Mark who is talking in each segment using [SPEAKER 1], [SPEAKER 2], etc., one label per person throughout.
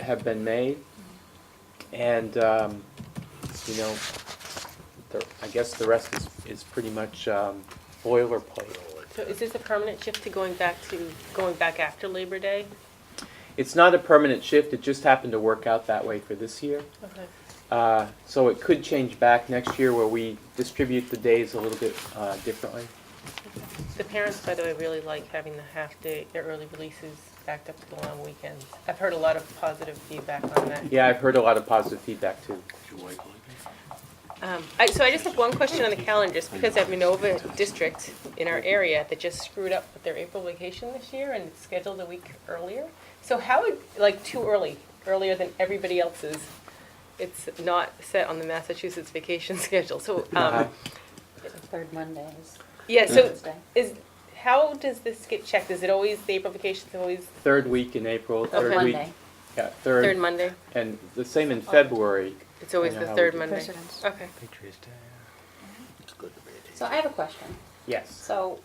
[SPEAKER 1] have been made. And, um, you know, the, I guess the rest is, is pretty much, um, boilerplate.
[SPEAKER 2] So is this a permanent shift to going back to, going back after Labor Day?
[SPEAKER 1] It's not a permanent shift, it just happened to work out that way for this year.
[SPEAKER 2] Okay.
[SPEAKER 1] Uh, so it could change back next year where we distribute the days a little bit, uh, differently.
[SPEAKER 2] The parents, by the way, really like having the half-day, their early releases backed up to the long weekends. I've heard a lot of positive feedback on that.
[SPEAKER 1] Yeah, I've heard a lot of positive feedback too.
[SPEAKER 2] Um, I, so I just have one question on the calendar, just because I have Minova District in our area that just screwed up with their April vacation this year and it's scheduled a week earlier. So how, would- like, too early, earlier than everybody else's. It's not set on the Massachusetts vacation schedule, so,
[SPEAKER 1] Uh-huh.
[SPEAKER 2] um,
[SPEAKER 3] Third Monday is
[SPEAKER 2] yeah, so
[SPEAKER 3] Wednesday.
[SPEAKER 2] is, how does this get checked? Is it always, the April vacation's always
[SPEAKER 1] Third week in April,
[SPEAKER 2] Third
[SPEAKER 1] third week.
[SPEAKER 3] Monday.
[SPEAKER 1] Yeah,
[SPEAKER 2] third
[SPEAKER 1] third,
[SPEAKER 2] Monday?
[SPEAKER 1] and the same in February.
[SPEAKER 2] It's always
[SPEAKER 1] I know
[SPEAKER 2] the
[SPEAKER 1] how we
[SPEAKER 2] third
[SPEAKER 1] do it.
[SPEAKER 2] Monday.
[SPEAKER 3] President's.
[SPEAKER 2] Okay.
[SPEAKER 4] Patriots Day.
[SPEAKER 3] So I have a question.
[SPEAKER 1] Yes.
[SPEAKER 3] So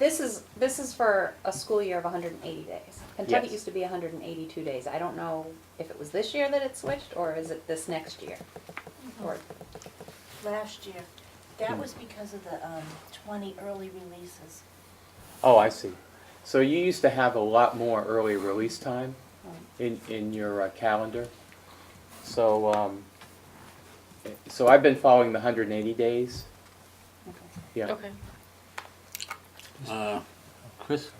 [SPEAKER 3] this is, this is for a school year of hundred and eighty days. Kentucky
[SPEAKER 1] Yes.
[SPEAKER 3] used to be hundred and eighty-two days. I don't know if it was this year that it switched, or is it this next year?
[SPEAKER 5] Mm-hmm.
[SPEAKER 3] Or,
[SPEAKER 6] last year. That was because of the um, 20 early releases.
[SPEAKER 1] Oh, I see. So you used to have a lot more early release time
[SPEAKER 3] um,
[SPEAKER 1] in, in your uh, calendar. So, um, so I've been following the hundred and eighty days.
[SPEAKER 3] okay.
[SPEAKER 1] Yeah.
[SPEAKER 2] Okay.
[SPEAKER 7] Uh, Chris,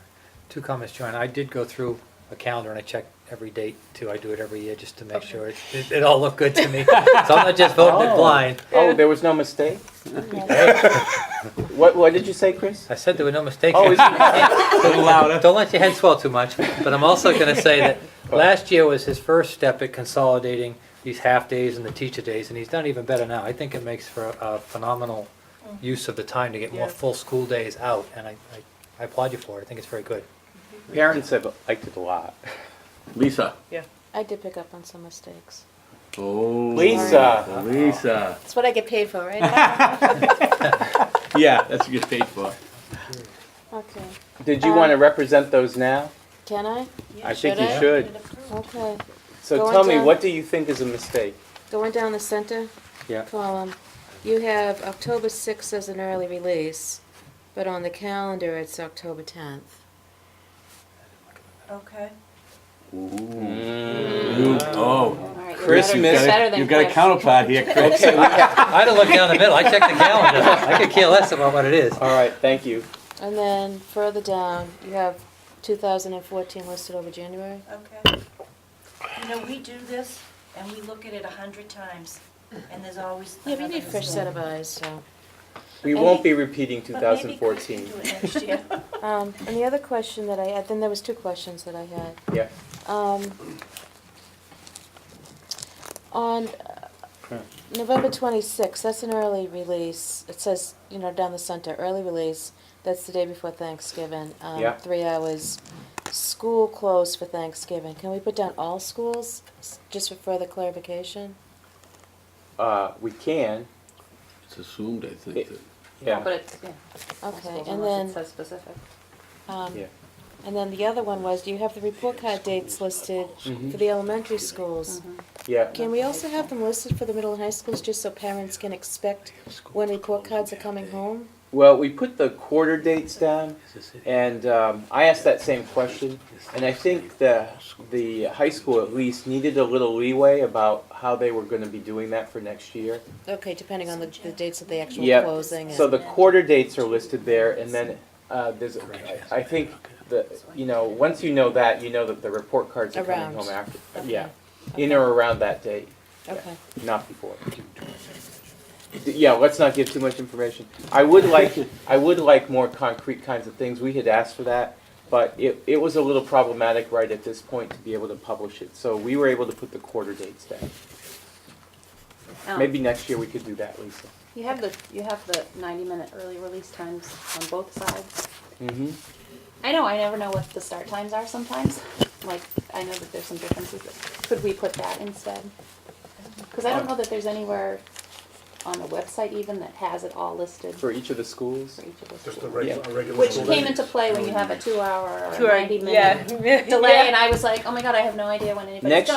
[SPEAKER 4] Two comments, John. I did go through a calendar and I checked every date too. I do it every year just to make
[SPEAKER 2] Okay.
[SPEAKER 4] sure it, it, it all looked good to me. so I'm not just voting it
[SPEAKER 1] Oh.
[SPEAKER 4] blind.
[SPEAKER 1] Oh, there was no mistake? What, what did you say, Chris?
[SPEAKER 4] I said there were no mistakes.
[SPEAKER 1] Oh, is it-
[SPEAKER 4] Don't let your head swell too much. But I'm also going to say that last year was his first step at consolidating these half days and the teacher days, and he's done even better now. I think it makes for a, a phenomenal use of the time to get more
[SPEAKER 2] Mm. Yeah.
[SPEAKER 4] full school days out, and I, I, I applaud you for it. I think it's very good.
[SPEAKER 1] parents have liked it a lot.
[SPEAKER 7] Lisa.
[SPEAKER 2] Yeah.
[SPEAKER 5] I did pick up on some mistakes.
[SPEAKER 7] Oh.
[SPEAKER 1] Lisa.
[SPEAKER 7] Lisa.
[SPEAKER 5] That's what I get paid for, right?
[SPEAKER 7] Yeah, that's what you get paid for.
[SPEAKER 5] okay.
[SPEAKER 1] Did you
[SPEAKER 6] Um,
[SPEAKER 1] want to represent those now?
[SPEAKER 5] Can I?
[SPEAKER 1] I think you
[SPEAKER 5] Should I?
[SPEAKER 1] should.
[SPEAKER 5] Okay.
[SPEAKER 1] So
[SPEAKER 5] Going
[SPEAKER 1] tell me,
[SPEAKER 5] down.
[SPEAKER 1] what do you think is a mistake?
[SPEAKER 5] Going down the center
[SPEAKER 1] Yeah.
[SPEAKER 5] column, you have October 6th as an early release, but on the calendar it's October 10th.
[SPEAKER 6] Okay. Mm.
[SPEAKER 7] You- Oh.
[SPEAKER 3] All right, you're
[SPEAKER 1] Chris,
[SPEAKER 3] better-
[SPEAKER 1] you
[SPEAKER 7] You've
[SPEAKER 1] Miss-
[SPEAKER 3] you're
[SPEAKER 7] got
[SPEAKER 3] better
[SPEAKER 7] a,
[SPEAKER 3] than
[SPEAKER 7] you've got a
[SPEAKER 3] Chris.
[SPEAKER 7] counterpart here, Chris.
[SPEAKER 1] Okay, we have-
[SPEAKER 4] I had to look down the middle. I checked the calendar. I could care less about what it is.
[SPEAKER 1] all right, thank you.
[SPEAKER 5] And then further down, you have 2014 listed over January.
[SPEAKER 6] Okay. You know, we do this and we look at it a hundred times and there's always.
[SPEAKER 5] Yeah, but you
[SPEAKER 6] another
[SPEAKER 5] need a fresh set
[SPEAKER 6] mistake.
[SPEAKER 5] of eyes, so.
[SPEAKER 1] We
[SPEAKER 6] And
[SPEAKER 1] won't
[SPEAKER 6] he-
[SPEAKER 1] be repeating
[SPEAKER 6] But maybe Chris
[SPEAKER 1] 2014.
[SPEAKER 6] can do it next year.
[SPEAKER 5] Um, and the other question that I had, then there was two questions that I had.
[SPEAKER 1] Yeah.
[SPEAKER 5] Um, on uh,
[SPEAKER 1] Okay.
[SPEAKER 5] November twenty-sixth, that's an early release. It says, you know, down the center, early release. That's the day before Thanksgiving. Um,
[SPEAKER 1] Yeah.
[SPEAKER 5] Three hours. School closed for Thanksgiving. Can we put down all schools, s- just for further clarification?
[SPEAKER 1] Uh, we can,
[SPEAKER 7] It's assumed, I think. that-
[SPEAKER 1] yeah.
[SPEAKER 3] But it's, yeah.
[SPEAKER 5] Okay, and
[SPEAKER 3] Unless it
[SPEAKER 5] then,
[SPEAKER 3] says specific.
[SPEAKER 5] um,
[SPEAKER 1] Yeah.
[SPEAKER 5] and then the other one was, do you have the report card dates listed
[SPEAKER 1] Mhm.
[SPEAKER 5] for the elementary schools?
[SPEAKER 1] Yeah,
[SPEAKER 5] Can we also have them listed for the middle and high schools, just so parents can expect when report cards are coming home?
[SPEAKER 1] well, we put the quarter dates down, and um, I asked that same question, and I think the, the high school at least needed a little leeway about how they were gonna be doing that for next year.
[SPEAKER 5] Okay, depending on the, the dates of the actual
[SPEAKER 1] Yep.
[SPEAKER 5] closing.
[SPEAKER 1] So
[SPEAKER 5] and-
[SPEAKER 1] the quarter dates are listed there, and then uh, there's, I think, the, you know, once you know that, you know that the report cards are coming
[SPEAKER 5] Around.
[SPEAKER 1] home after, yeah.
[SPEAKER 5] Okay.
[SPEAKER 1] In or around that date.
[SPEAKER 5] Okay,
[SPEAKER 1] Not before. Yeah, let's not give too much information. I would like, I would like more concrete kinds of things. We had asked for that, but it, it was a little problematic right at this point to be able to publish it. So we were able to put the quarter dates down.
[SPEAKER 5] Oh.
[SPEAKER 3] Um,
[SPEAKER 1] Maybe next year we could do that, Lisa.
[SPEAKER 3] You have the, you have the ninety-minute early release times on both sides.
[SPEAKER 1] Mm-hmm.
[SPEAKER 3] I know, I never know what the start times are sometimes. Like, I know that there's some differences, but could we put that instead? Because I don't know that there's anywhere on the website even that has it all listed for
[SPEAKER 1] For each of the schools.
[SPEAKER 3] each of
[SPEAKER 8] Just
[SPEAKER 3] us.
[SPEAKER 8] a regular,
[SPEAKER 1] Yeah.
[SPEAKER 8] a regular.
[SPEAKER 3] Which
[SPEAKER 8] school Um,
[SPEAKER 3] came
[SPEAKER 8] day.
[SPEAKER 3] into play when you have a two-hour or
[SPEAKER 2] Two hour-
[SPEAKER 3] ninety-minute
[SPEAKER 2] yeah.
[SPEAKER 3] delay, and
[SPEAKER 2] Yeah.
[SPEAKER 3] I was like, oh my god, I have no idea when anybody's
[SPEAKER 1] Next
[SPEAKER 3] done.